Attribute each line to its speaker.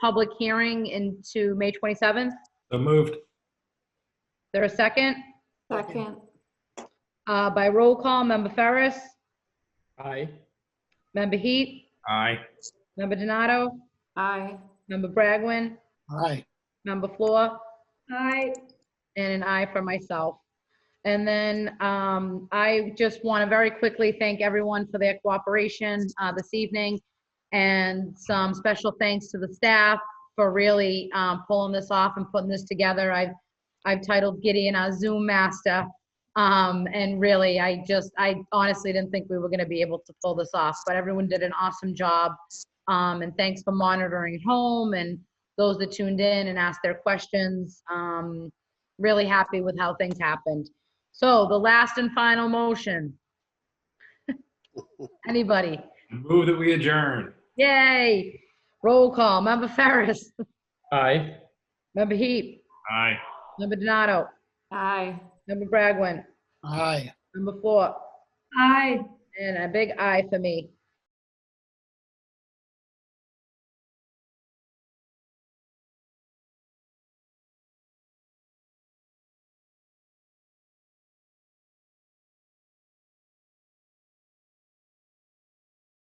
Speaker 1: public hearing into May 27th.
Speaker 2: So moved.
Speaker 1: There a second?
Speaker 3: Second,
Speaker 1: Uh, By roll call, Member Ferris,
Speaker 2: Aye.
Speaker 1: Member Heat,
Speaker 2: Aye.
Speaker 1: Member Donato,
Speaker 3: aye.
Speaker 1: Member Bragwin,
Speaker 4: Aye.
Speaker 1: Member Floor,
Speaker 3: Aye.
Speaker 1: and an aye for myself. And then um, I just want to very quickly thank everyone for their cooperation uh, this evening, and some special thanks to the staff for really um, pulling this off and putting this together. I've I've titled Gideon our Zoom master, um, and really, I just I honestly didn't think we were going to be able to pull this off, but everyone did an awesome job. Um, and thanks for monitoring at home and those that tuned in and asked their questions. Um, really happy with how things happened. So the last and final motion. Anybody?
Speaker 2: Move that we adjourn.
Speaker 1: Yay! Roll call. Member Ferris.
Speaker 2: Aye.
Speaker 1: Member Heap.
Speaker 2: Aye.
Speaker 1: Member Donato.
Speaker 3: Aye.
Speaker 1: Member Bragwin.
Speaker 4: Aye.
Speaker 1: Member Four.
Speaker 3: Aye.
Speaker 1: And a big aye for me.